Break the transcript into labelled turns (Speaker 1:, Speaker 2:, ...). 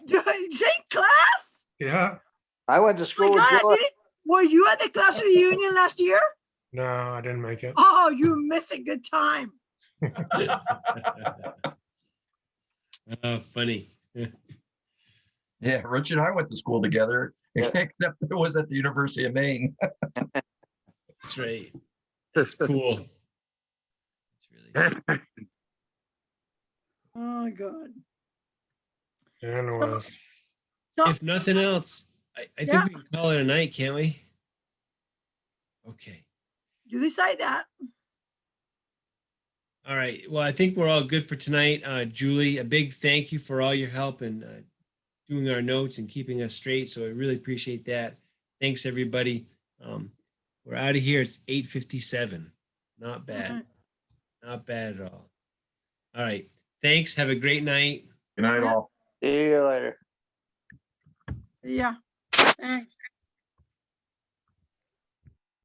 Speaker 1: Yeah,
Speaker 2: I went
Speaker 3: Oh
Speaker 2: to
Speaker 3: My
Speaker 2: school with
Speaker 3: God,
Speaker 2: George.
Speaker 3: did it- were you at the class reunion last year?
Speaker 1: no, I didn't make it.
Speaker 3: Oh, you miss a good time.
Speaker 4: Oh, funny.
Speaker 5: Yeah, Rich and I went to school together,
Speaker 2: Yeah.
Speaker 5: except it was at the University of Maine.
Speaker 4: That's right. That's cool. It's really-
Speaker 3: Oh, God.
Speaker 1: Dan
Speaker 3: So-
Speaker 1: was,
Speaker 3: So,
Speaker 4: If nothing else, I, I
Speaker 3: Yeah.
Speaker 4: think we can call it a night, can't we? Okay.
Speaker 3: you decide that.
Speaker 4: All right. Well, I think we're all good for tonight. Uh, Julie, a big thank you for all your help and uh, doing our notes and keeping us straight. So I really appreciate that. Thanks, everybody. Um, we're out of here. It's 8:57. Not bad.
Speaker 3: Mhm.
Speaker 4: Not bad at all. All right. Thanks. Have a great night.
Speaker 5: Good night, all.
Speaker 2: See you later.
Speaker 3: Yeah. Thanks.